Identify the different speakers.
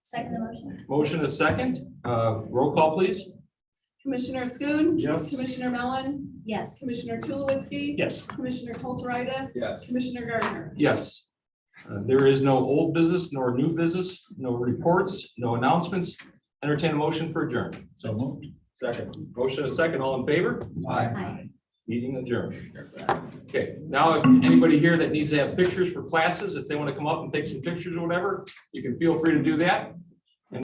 Speaker 1: Second the motion.
Speaker 2: Motion a second, uh, roll call please.
Speaker 3: Commissioner Schoon.
Speaker 2: Yes.
Speaker 3: Commissioner Mellon,
Speaker 1: Yes.
Speaker 3: Commissioner Tulowitzki.
Speaker 2: Yes.
Speaker 3: Commissioner Kulturitis.
Speaker 4: Yes.
Speaker 3: Commissioner Gardner.
Speaker 2: Yes. Uh, There is no old business nor new business, no reports, no announcements. Entertain a motion for adjournment.
Speaker 4: So moved. Second.
Speaker 2: Motion a second, all in favor?
Speaker 1: Aye.
Speaker 2: Meeting adjourned. Okay, now if anybody here that needs to have pictures for classes, if they want to come up and take some pictures or whatever, you can feel free to do that.